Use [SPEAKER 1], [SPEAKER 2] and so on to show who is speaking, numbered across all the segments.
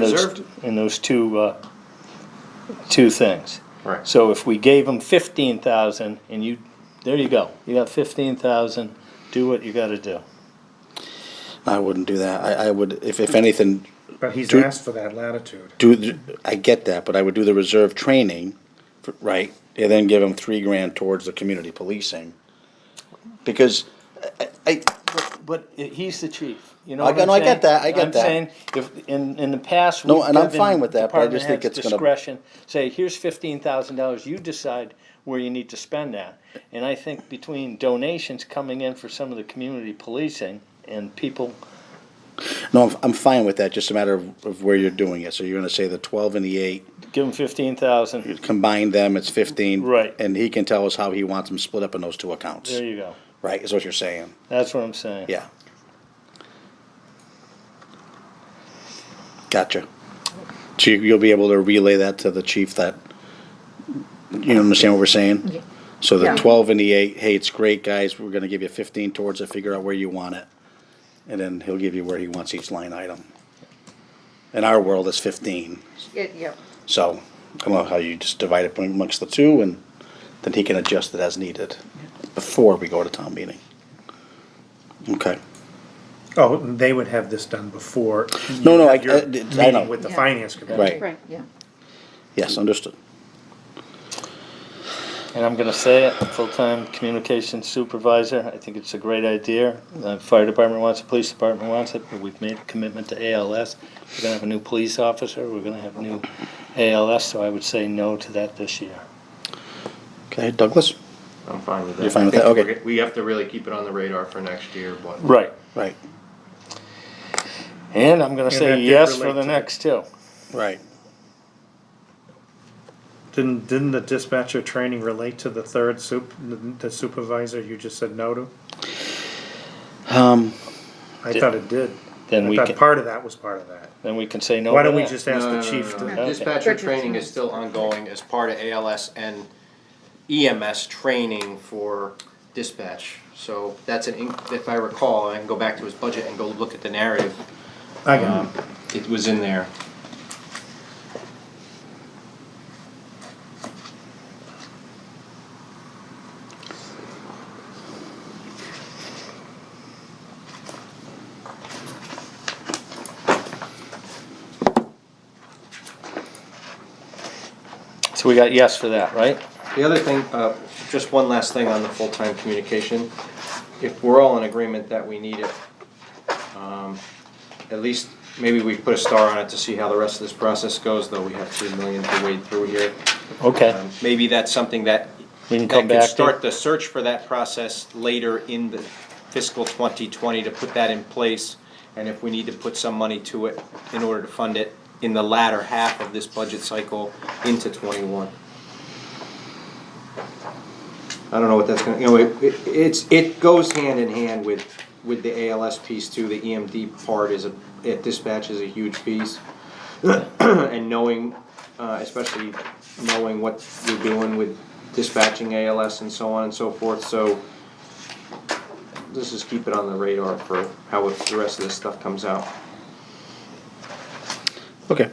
[SPEAKER 1] those-
[SPEAKER 2] Reserved.
[SPEAKER 1] In those two, uh, two things.
[SPEAKER 2] Right.
[SPEAKER 1] So if we gave them fifteen thousand and you, there you go, you got fifteen thousand, do what you gotta do.
[SPEAKER 3] I wouldn't do that. I, I would, if, if anything,
[SPEAKER 4] But he's
[SPEAKER 3] Do-
[SPEAKER 4] asked for that latitude.
[SPEAKER 3] do, the- I get that, but I would do the reserve training, for- right? And then give them three grand towards the community policing. Because I, I,
[SPEAKER 1] But i- he's the chief, you know
[SPEAKER 3] I
[SPEAKER 1] what
[SPEAKER 3] get-
[SPEAKER 1] I'm
[SPEAKER 3] no, I
[SPEAKER 1] saying?
[SPEAKER 3] get that, I get
[SPEAKER 1] I'm
[SPEAKER 3] that.
[SPEAKER 1] saying, if, in, in the past.
[SPEAKER 3] No,
[SPEAKER 1] we've
[SPEAKER 3] and I'm
[SPEAKER 1] given
[SPEAKER 3] fine with that, but I just
[SPEAKER 1] department
[SPEAKER 3] think
[SPEAKER 1] heads
[SPEAKER 3] it's gonna-
[SPEAKER 1] Discretion, say, here's fifteen thousand dollars, you decide where you need to spend that. And I think between donations coming in for some of the community policing and people
[SPEAKER 3] no, I'm, I'm fine with that, just a matter of, of where you're doing it. So you're gonna say the twelve and the eight,
[SPEAKER 1] give them fifteen thousand,
[SPEAKER 3] combine them, it's fifteen.
[SPEAKER 1] Right.
[SPEAKER 3] And he can tell us how he wants them split up in those two accounts,
[SPEAKER 1] there you go,
[SPEAKER 3] right, is what you're saying,
[SPEAKER 1] that's what I'm saying.
[SPEAKER 3] yeah. Gotcha. So you- you'll be able to relay that to the chief that, you understand what we're saying? So the
[SPEAKER 5] Yeah.
[SPEAKER 3] twelve and the eight, hey, it's great, guys, we're gonna give you fifteen towards it, figure out where you want it. And then he'll give you where he wants each line item. In our world, it's fifteen,
[SPEAKER 5] It, yep.
[SPEAKER 3] so I don't know how you just divide it amongst the two and then he can adjust it as needed before we go to town meeting. Okay.
[SPEAKER 4] Oh, and they would have this done before. you
[SPEAKER 3] No, no,
[SPEAKER 4] have
[SPEAKER 3] I-
[SPEAKER 4] your
[SPEAKER 3] I- I
[SPEAKER 4] meeting
[SPEAKER 3] know.
[SPEAKER 4] With the
[SPEAKER 5] Yeah.
[SPEAKER 4] finance committee.
[SPEAKER 3] Right.
[SPEAKER 5] Right, yeah.
[SPEAKER 3] Yes, understood.
[SPEAKER 1] And I'm gonna say it, full-time communications supervisor, I think it's a great idea. The fire department wants it, police department wants it, but we've made a commitment to ALS. We're gonna have a new police officer, we're gonna have new ALS, so I would say no to that this year.
[SPEAKER 3] Okay, Douglas?
[SPEAKER 2] I'm fine with that.
[SPEAKER 3] You're fine with
[SPEAKER 2] I
[SPEAKER 3] that?
[SPEAKER 2] think
[SPEAKER 3] Okay.
[SPEAKER 2] we're g- We have to really keep it on the radar for next year, what.
[SPEAKER 1] Right.
[SPEAKER 3] Right,
[SPEAKER 1] And I'm gonna
[SPEAKER 4] that
[SPEAKER 1] say
[SPEAKER 4] did
[SPEAKER 1] yes for
[SPEAKER 4] relate
[SPEAKER 1] the
[SPEAKER 4] to the-
[SPEAKER 1] next two.
[SPEAKER 3] right.
[SPEAKER 4] Didn't, didn't the dispatcher training relate to the third sup, the supervisor you just said no to?
[SPEAKER 3] Um,
[SPEAKER 4] I thought it did.
[SPEAKER 1] Then
[SPEAKER 4] I
[SPEAKER 1] we
[SPEAKER 4] thought
[SPEAKER 1] can,
[SPEAKER 4] part of that was part of that.
[SPEAKER 1] then we can say no
[SPEAKER 4] Why
[SPEAKER 1] to
[SPEAKER 4] don't we
[SPEAKER 1] that.
[SPEAKER 4] just
[SPEAKER 2] No,
[SPEAKER 4] ask
[SPEAKER 2] no,
[SPEAKER 4] the
[SPEAKER 2] no,
[SPEAKER 4] chief
[SPEAKER 2] no, no.
[SPEAKER 4] to?
[SPEAKER 2] Dispatcher training is still ongoing as part of ALS and EMS training for dispatch. So that's an, inc- if I recall, I can go back to his budget and go look at the narrative.
[SPEAKER 4] I got
[SPEAKER 2] Um, It was in there.
[SPEAKER 1] So we got yes for that, right?
[SPEAKER 2] The other thing, uh, just one last thing on the full-time communication. If we're all in agreement that we need it, um, at least, maybe we put a star on it to see how the rest of this process goes, though we have three million to wade through here.
[SPEAKER 1] Okay,
[SPEAKER 2] Um, Maybe that's something that,
[SPEAKER 1] We can
[SPEAKER 2] that
[SPEAKER 1] come
[SPEAKER 2] could
[SPEAKER 1] back to.
[SPEAKER 2] start the search for that process later in the fiscal twenty twenty to put that in place. And if we need to put some money to it in order to fund it in the latter half of this budget cycle into twenty-one. I don't know what that's gonna, you know, it, it- it's, it goes hand in hand with, with the ALS piece too, the EMD part is a, it dispatch is a huge piece. And knowing, uh, especially knowing what you're doing with dispatching ALS and so on and so forth, so. This is keep it on the radar for how if the rest of this stuff comes out.
[SPEAKER 3] Okay.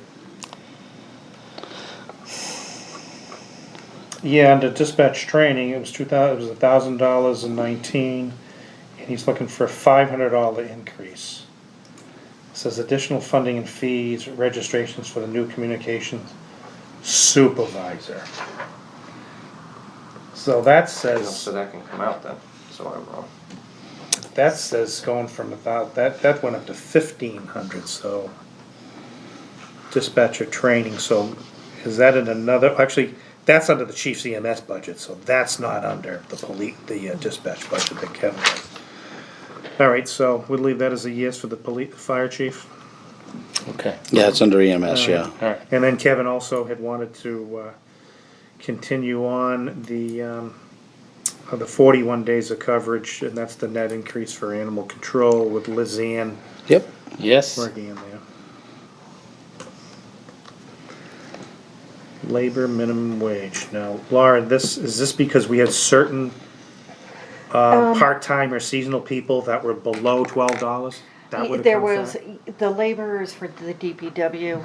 [SPEAKER 4] Yeah, under dispatch training, it was two thousand, it was a thousand dollars and nineteen, and he's looking for a five hundred dollar increase. It Says additional funding and fees, registrations for the new communications supervisor. So that
[SPEAKER 2] You know,
[SPEAKER 4] says,
[SPEAKER 2] So that can come out then, so I'm wrong.
[SPEAKER 4] that says going from about, that, that went up to fifteen hundred, so. Dispatcher training, so is that in another, actually, that's under the chief's EMS budget, so that's not under the police, the uh, dispatch budget that Kevin has. Alright, so we'll leave that as a yes for the police, fire chief.
[SPEAKER 1] okay,
[SPEAKER 3] Yeah, it's under EMS, yeah.
[SPEAKER 1] all right.
[SPEAKER 4] And then Kevin also had wanted to, uh, continue on the, um, uh, the forty-one days of coverage, and that's the net increase for animal control with Lizanne
[SPEAKER 3] Yep.
[SPEAKER 1] Yes,
[SPEAKER 4] working in there. Labor minimum wage. Now, Laura, this, is this because we had certain uh, part-time or seasonal people that were below twelve dollars?
[SPEAKER 5] There was, the laborers for the DPW